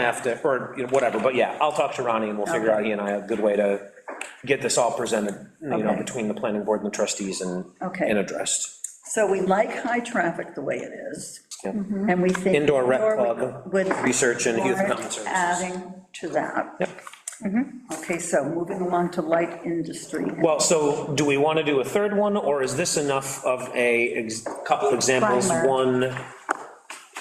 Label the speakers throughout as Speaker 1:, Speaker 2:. Speaker 1: have to, or, you know, whatever, but yeah, I'll talk to Ronnie and we'll figure out, he and I, a good way to get this all presented, you know,
Speaker 2: Okay.
Speaker 1: between the planning board and the trustees and,
Speaker 2: Okay.
Speaker 1: and addressed.
Speaker 2: So we like high traffic the way it is,
Speaker 1: Yep.
Speaker 3: Mm-hmm.
Speaker 2: and we think.
Speaker 1: Indoor rec
Speaker 2: indoor
Speaker 1: club,
Speaker 2: would-
Speaker 1: research and youth
Speaker 2: warrant
Speaker 1: common services.
Speaker 2: Adding to that.
Speaker 1: Yep.
Speaker 2: Okay, so moving along to light industry.
Speaker 1: Well, so do we want to do a third one, or is this enough of a ex- couple examples?
Speaker 3: Primer.
Speaker 1: One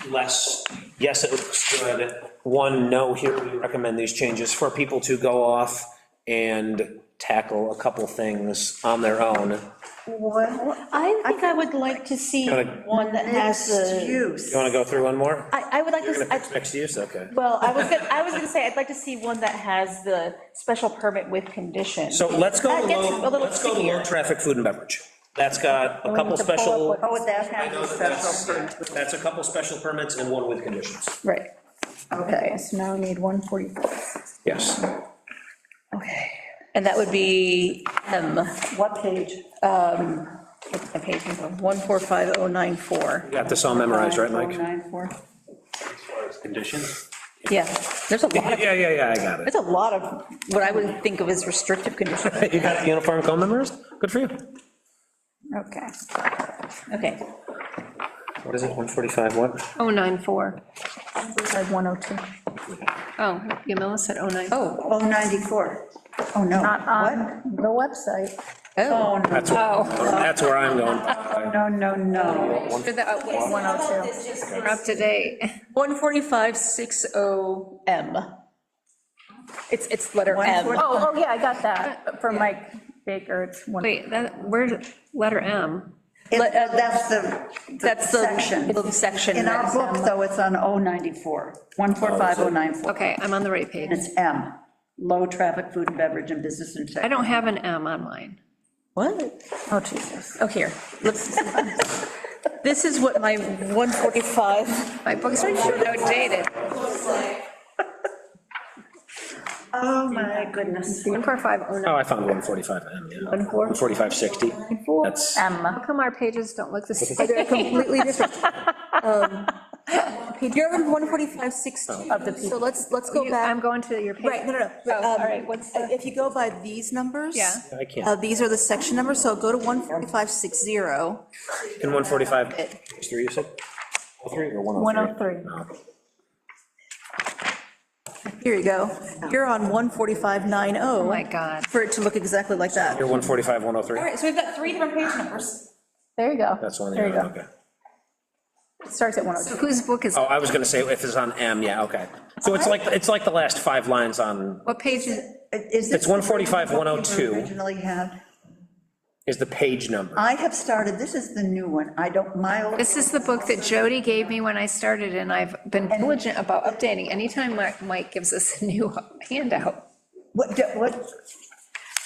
Speaker 1: less, yes, it looks good, one, no, here, we recommend these changes for people to go off and tackle a couple things on their own.
Speaker 2: Well,
Speaker 3: I think I would like to see
Speaker 1: Kinda-
Speaker 3: one that has
Speaker 2: mixed
Speaker 3: the,
Speaker 2: use.
Speaker 1: You want to go through one more?
Speaker 3: I, I would like to, s- I-
Speaker 1: Next use, okay.
Speaker 3: well, I was, gonna- I was gonna say, I'd like to see one that has the special permit with condition.
Speaker 1: So let's go,
Speaker 3: That
Speaker 1: to
Speaker 3: gets a
Speaker 1: low-
Speaker 3: little
Speaker 1: let's go to
Speaker 3: stickier.
Speaker 1: low-traffic food and beverage. That's got a
Speaker 3: we
Speaker 1: couple
Speaker 3: need to pull up
Speaker 1: special,
Speaker 3: what-
Speaker 2: Oh, that has a
Speaker 1: that's
Speaker 2: special permit.
Speaker 1: that's a couple special permits and one with conditions.
Speaker 3: Right,
Speaker 2: Okay,
Speaker 3: so now we need 144.
Speaker 1: Yes.
Speaker 3: Okay, and that would be um, M,
Speaker 2: what page?
Speaker 3: what's Um, the page number, 145094.
Speaker 1: Got this all memorized, right,
Speaker 2: Oh,
Speaker 1: Mike?
Speaker 2: nine, four.
Speaker 1: Conditions?
Speaker 3: Yeah, there's a lot of,
Speaker 1: Yeah, yeah, yeah, I got it.
Speaker 3: there's a lot of what I would think of as restrictive conditions.
Speaker 1: You got the uniform code memorized? Good for you.
Speaker 3: Okay. Okay.
Speaker 1: What is it, 145 what?
Speaker 4: 094.
Speaker 3: I have 102.
Speaker 4: Oh, Yamila said 094.
Speaker 3: Oh,
Speaker 2: Oh, 94. Oh, no.
Speaker 4: Not
Speaker 2: What?
Speaker 4: on the website.
Speaker 2: Oh, no,
Speaker 1: That's, that's where I'm going.
Speaker 2: no, no, no.
Speaker 4: For the, uh, what's-
Speaker 3: 102.
Speaker 4: we're up to date.
Speaker 3: 14560M. It's, it's letter M.
Speaker 2: 140
Speaker 5: Oh, oh, yeah, I got that, from Mike Baker, it's one.
Speaker 4: Wait, that, where, letter M?
Speaker 2: It- uh, That's the.
Speaker 3: That's the
Speaker 2: Section.
Speaker 3: little section.
Speaker 2: In our
Speaker 3: that's,
Speaker 2: book,
Speaker 3: um,
Speaker 2: though, it's on 094, 145094.
Speaker 4: Okay, I'm on the right page.
Speaker 2: And it's M, low traffic food and beverage and business and
Speaker 4: I
Speaker 2: tech.
Speaker 4: don't have an M on mine.
Speaker 3: What?
Speaker 5: Oh, Jesus.
Speaker 3: Oh, here. Let's- This is what my 145,
Speaker 4: My books are outdated.
Speaker 2: Oh, my goodness.
Speaker 4: 145094.
Speaker 1: Oh, I found 145M, yeah. 14560. That's,
Speaker 3: Um,
Speaker 4: How come our pages don't look the
Speaker 3: they're
Speaker 4: same?
Speaker 3: completely different. Um, okay, You're on 14516. oh Of the So let's, let's go back.
Speaker 4: I'm going to your page.
Speaker 3: Right, no, no, no.
Speaker 4: Oh, all
Speaker 3: Um,
Speaker 4: right, what's the-
Speaker 3: If you go by these numbers.
Speaker 4: Yeah.
Speaker 1: I
Speaker 3: Uh,
Speaker 1: can't.
Speaker 3: these are the section numbers, so go to 14560.
Speaker 1: In 145, page three, you said? 103 or 103? 103.
Speaker 3: Here you go. You're on 14590.
Speaker 4: Oh, my God.
Speaker 3: For it to look exactly like that.
Speaker 1: You're 145, 103?
Speaker 3: so we've got three different page numbers.
Speaker 5: There you go.
Speaker 1: That's the one,
Speaker 5: There you
Speaker 1: yeah,
Speaker 5: go.
Speaker 1: okay.
Speaker 5: It Starts at 102.
Speaker 4: Whose book is,
Speaker 1: Oh, I was gonna say, if it's on M, yeah, okay. So it's like, it's like the last five lines on,
Speaker 4: what page is,
Speaker 2: It's
Speaker 1: it's 145, 102
Speaker 2: Originally had,
Speaker 1: is the page number.
Speaker 2: I have started, this is the new one, I don't, my old.
Speaker 4: this is the book that Jody gave me when I started, and I've been diligent about updating. Anytime Mike- Mike gives us a new handout.
Speaker 2: What, what,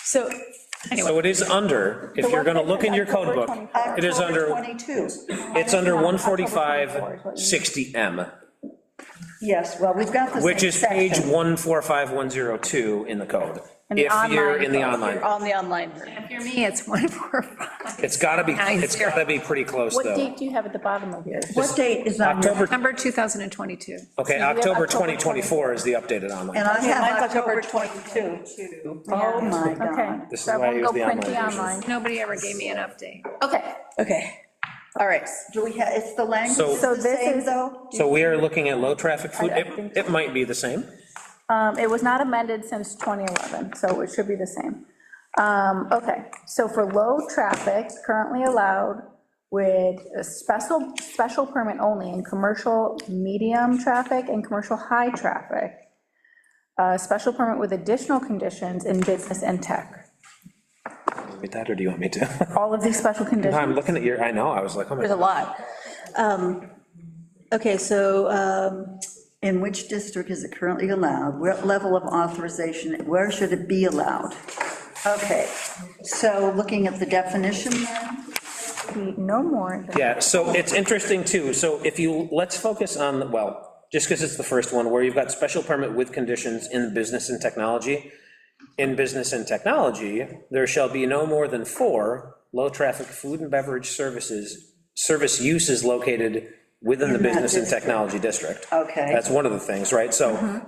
Speaker 4: So,
Speaker 1: So it is under, if you're gonna look in your code book, it is
Speaker 2: October
Speaker 1: under,
Speaker 2: 22.
Speaker 1: it's under 145, 60M,
Speaker 2: Yes, well, we've got the same
Speaker 1: which is page
Speaker 2: section.
Speaker 1: 145102 in the code.
Speaker 5: the
Speaker 1: If you're
Speaker 5: online
Speaker 1: in the
Speaker 5: code.
Speaker 1: online,
Speaker 3: On the online version.
Speaker 4: if you're me, it's 145.
Speaker 1: it's gotta be,
Speaker 4: Nine
Speaker 1: it's
Speaker 4: zero.
Speaker 1: gotta be pretty close,
Speaker 5: What
Speaker 1: though.
Speaker 5: date do you have at the bottom of yours?
Speaker 2: What date is on? your-
Speaker 1: October,
Speaker 4: Number 2022.
Speaker 1: okay,
Speaker 5: have
Speaker 1: October
Speaker 5: October
Speaker 1: 2024 is the updated online.
Speaker 2: And I
Speaker 3: mine's
Speaker 2: have
Speaker 3: October
Speaker 2: October 22. Oh, my
Speaker 5: Okay.
Speaker 2: God.
Speaker 1: This is
Speaker 5: so
Speaker 1: why I
Speaker 5: everyone
Speaker 1: use
Speaker 5: go
Speaker 1: the
Speaker 5: print
Speaker 1: online version.
Speaker 4: Nobody ever gave me an update.
Speaker 5: Okay,
Speaker 3: Okay. All right.
Speaker 2: Do we have, it's the language,
Speaker 1: So-
Speaker 2: is
Speaker 5: So
Speaker 2: the
Speaker 5: this
Speaker 2: same,
Speaker 5: is-
Speaker 2: though?
Speaker 1: So we are looking at low-traffic food, it, it might be the same.
Speaker 5: um, it was not amended since 2011, so it should be the same. Um, okay, so for low traffic, currently allowed with a special, special permit only in commercial medium traffic and commercial high traffic. A special permit with additional conditions in business and tech.
Speaker 1: Read that, or do you want me to?
Speaker 5: All of these special conditions.
Speaker 1: I'm looking at your, I know, I was like, oh my.
Speaker 3: There's a lot. Um, Okay, so um,
Speaker 2: In which district is it currently allowed? What level of authorization, where should it be allowed? Okay, so looking at the definition then,
Speaker 5: be no more than.
Speaker 1: Yeah, so it's interesting too, so if you, let's focus on, well, just because it's the first one, where you've got special permit with conditions in business and technology. In business and technology, there shall be no more than four low-traffic food and beverage services, service uses located within the
Speaker 2: In that
Speaker 1: business and
Speaker 2: district.
Speaker 1: technology district.
Speaker 2: Okay. Mm-hmm.
Speaker 1: That's one of the things, right? So